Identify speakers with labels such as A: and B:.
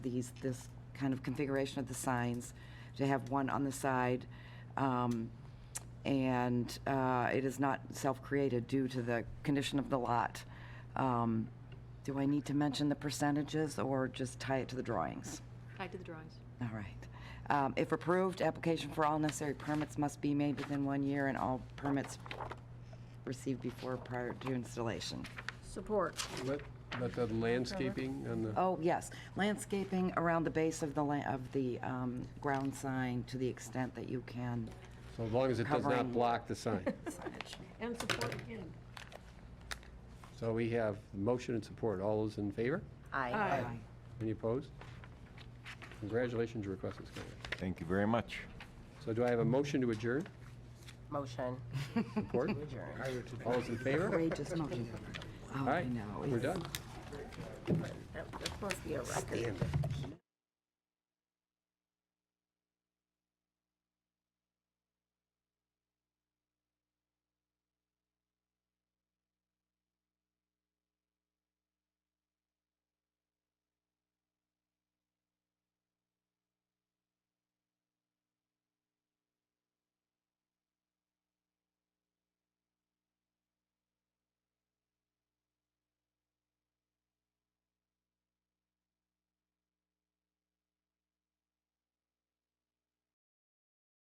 A: these, this kind of configuration of the signs, to have one on the side. um, And uh, it is not self-created due to the condition of the lot. Um, Do I need to mention the percentages or just tie it to the drawings?
B: Tied to the drawings.
A: All right. Um, If approved, application for all necessary permits must be made within one year and all permits received before prior to installation.
C: Support.
D: Let, let the landscaping and the,
A: Oh, yes, landscaping around the base of the, la- of the um, ground sign to the extent that you can.
D: so as long as it does
A: Covering.
D: not block the sign.
C: And support again.
D: So we have motion and support. All those in favor?
C: Aye.
D: Any opposed? Congratulations, your request is carried.
E: Thank you very much.
D: So do I have a motion to adjourn?
F: Motion.
D: Support? All those in favor?
A: Outrageous motion. Oh,
D: All
A: I
D: right,
A: know.
D: we're
A: it's-
D: done.
F: That- That's supposed to be a record.
D: Damn it.